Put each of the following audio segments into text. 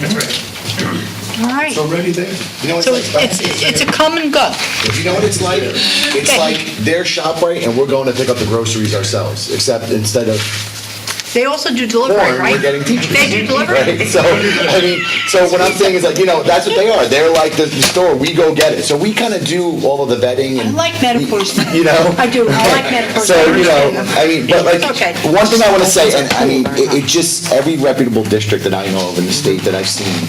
That's right. All right. It's already there. You know what So it's like? it's, it's a come and go. You know what it's like? It's Okay. like their shop right, and we're going to pick up the groceries ourselves, except instead of They also do delivery, porn, right? we're getting teachers. They do Right? delivery? So, I mean, so what I'm saying is like, you know, that's what they are. They're like the the store, we go get it. So we kind of do all of the vetting I and. like metaphors. You know? I do, I like metaphors. So, I you know, understand them. I mean, but like, Okay. one thing I want to say, and I mean, it, it just, every reputable district that I know of in the state that I've seen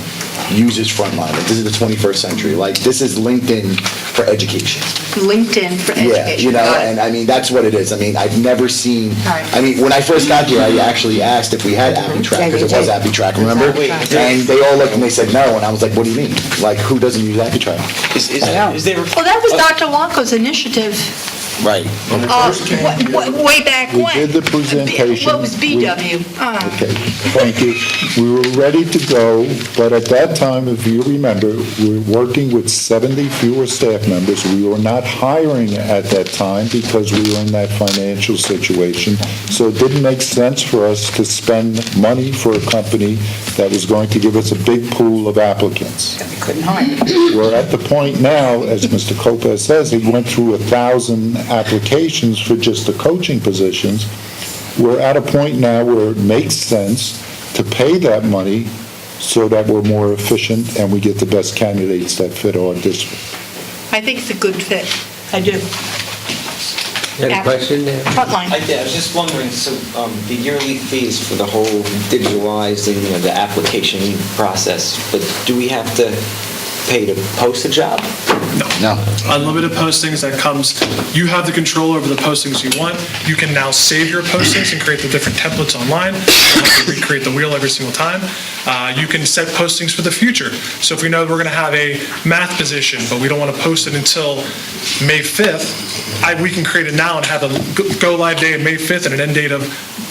uses Frontline. Like, this is the 21st century. Like, this is LinkedIn for education. LinkedIn for Yeah, you education, know, got and it. I mean, that's what it is. I mean, I've never seen, Right. Mm-hmm. I mean, when I first got here, I actually asked if we had Appy Track, because it was Appy Track, remember? And they all looked and they said no, and I was like, what do you mean? Like, who doesn't use Appy Track? Is, is, is there, Well, that was Dr. Wanko's initiative Right. uh, wa- wa- way back We when. did the presentation. What was BW? Uh, Okay, thank you. We were ready to go, but at that time, if you remember, we were working with 70 fewer staff members. We were not hiring at that time because we were in that financial situation. So it didn't make sense for us to spend money for a company that was going to give us a big pool of applicants. We're at the point now, as Mr. Copaz says, he went through a 1,000 applications for just the coaching positions. We're at a point now where it makes sense to pay that money so that we're more efficient and we get the best candidates that fit our district. I think it's a good fit. I do. You had a question there? I, Frontline. yeah, I was just wondering, so, um, the yearly fees for the whole digitalized and, you know, the application process, but do we have to pay to post a job? No. unlimited postings that comes, you have the control over the postings you want. You can now save your postings and create the different templates online. You don't have to recreate the wheel every single time. Uh, you can set postings for the future. So if we know we're going to have a math position, but we don't want to post it until May 5th, I, we can create it now and have a go- go live date of May 5th and an end date of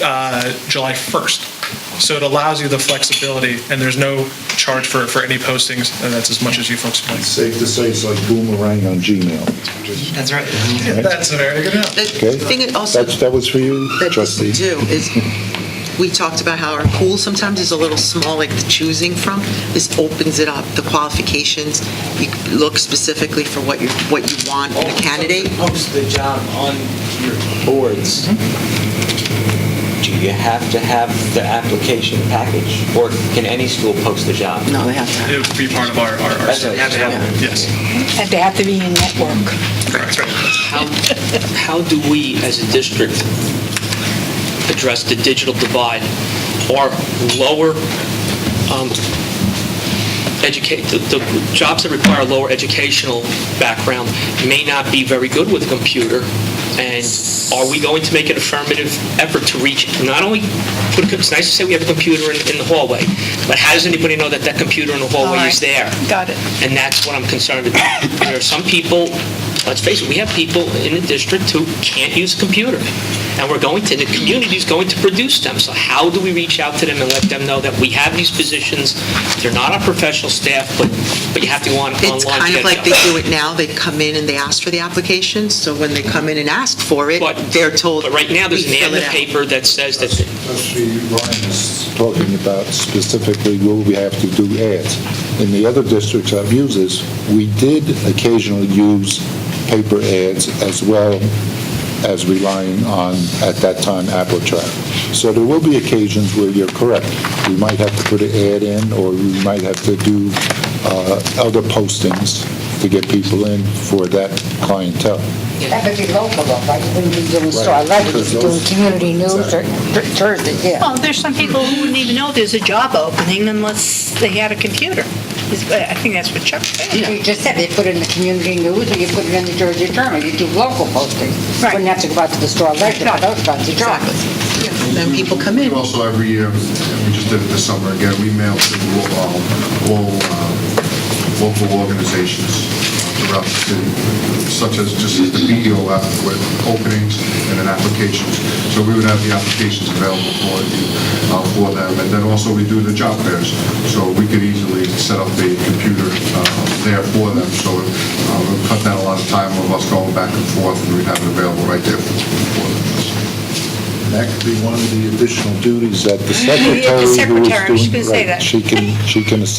uh, July 1st. So it allows you the flexibility, and there's no charge for, for any postings, and that's as much as you folks want. Safe to say it's like boomerang on Gmail. That's right. That's a very good help. The Okay. thing also That's- That was for you, that we trustee? do is, we talked about how our pool sometimes is a little small, like the choosing from. This opens it up, the qualifications, you can look specifically for what you, what you want in a candidate. Post the job on your boards. Do you have to have the application package, or can any school post the job? No, they have to. It would be part of our, our, our That's what you have to have. Yes, And they have to be in network. that's right. How how do we, as a district, address the digital divide? Our lower um, educate, the- the jobs that require a lower educational background may not be very good with a computer, and are we going to make an affirmative effort to reach, not only, put a co- it's nice to say we have a computer in in the hallway, but how does anybody know that that computer in the All hallway right. is there? Got it. And that's what I'm concerned about. There are some people, let's face it, we have people in the district who can't use a computer. And we're going to, the community's going to produce them. So how do we reach out to them and let them know that we have these positions? They're not our professional staff, but, but you have to go on online It's to get a kind of like job. they do it now, they come in and they ask for the application, so when they come in and ask for it, But- they're told. But right now, there's an "We ad fill in it the out." paper that says that, Trustee Ryan is talking about specifically, will we have to do ads? In the other districts I've used this, we did occasionally use paper ads as well as relying on, at that time, AppleTrack. So there will be occasions where you're correct. We might have to put an ad in, or we might have to do uh, other postings to get people in for that clientele. That could be local though, right? You wouldn't be doing store Right, level, because you'd be doing those- community news or Thursday, yeah. Well, there's some people who wouldn't even know there's a job opening unless they had a computer. Is- I think that's what Chuck said. You just said, they put it in the community news or you put it in the Jersey Journal, you do local postings. Right. Wouldn't have to go out to the store level, Got it. those kinds of Exactly. jobs. Yeah, Then people come in. We also, every year, and we just did it this summer again, we mail to all, all um, local organizations throughout the city, such as just as the BEOF with openings and then applications. So we would have the applications available for you, uh, for them. And then also, we do the job fairs, so we could easily set up the computer uh, there for them. So uh, we'll cut down a lot of time of us going back and forth, and we'd have it available right there for them. That could be one of the additional duties that the Yeah, the secretary who is doing. secretary, I was gonna say right, that. She can, she can assist